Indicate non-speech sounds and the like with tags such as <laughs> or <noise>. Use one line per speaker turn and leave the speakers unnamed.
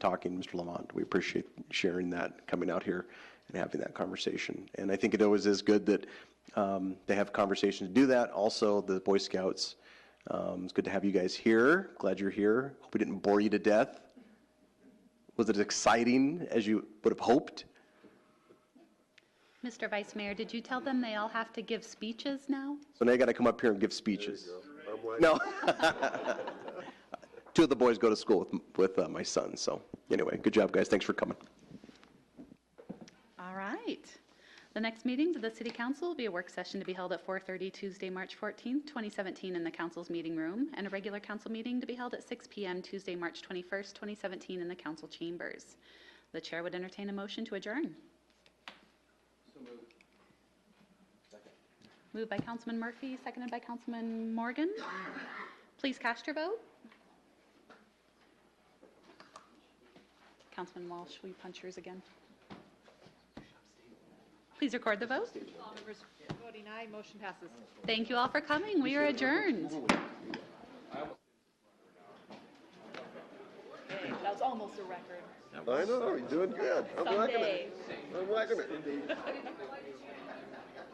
talking, Mr. Lamont. We appreciate sharing that, coming out here and having that conversation. And I think it always is good that um, they have conversations to do that. Also, the Boy Scouts, um, it's good to have you guys here. Glad you're here. Hope we didn't bore you to death. Was it as exciting as you would have hoped?
Mr. Vice Mayor, did you tell them they all have to give speeches now?
So now you got to come up here and give speeches. No. <laughs> Two of the boys go to school with, with uh, my son, so anyway, good job, guys. Thanks for coming.
All right. The next meeting of the City Council will be a work session to be held at 4:30 Tuesday, March 14th, 2017, in the council's meeting room, and a regular council meeting to be held at 6 PM Tuesday, March 21st, 2017, in the council chambers. The chair would entertain a motion to adjourn. Moved by Councilman Murphy, seconded by Councilman Morgan. Please cast your vote. Councilman Walsh, will you punch yours again? Please record the vote.
All members voting aye, motion passes.
Thank you all for coming. We are adjourned.
That was almost a record.
I know, you're doing good. I'm liking it.
Someday.
I'm liking it.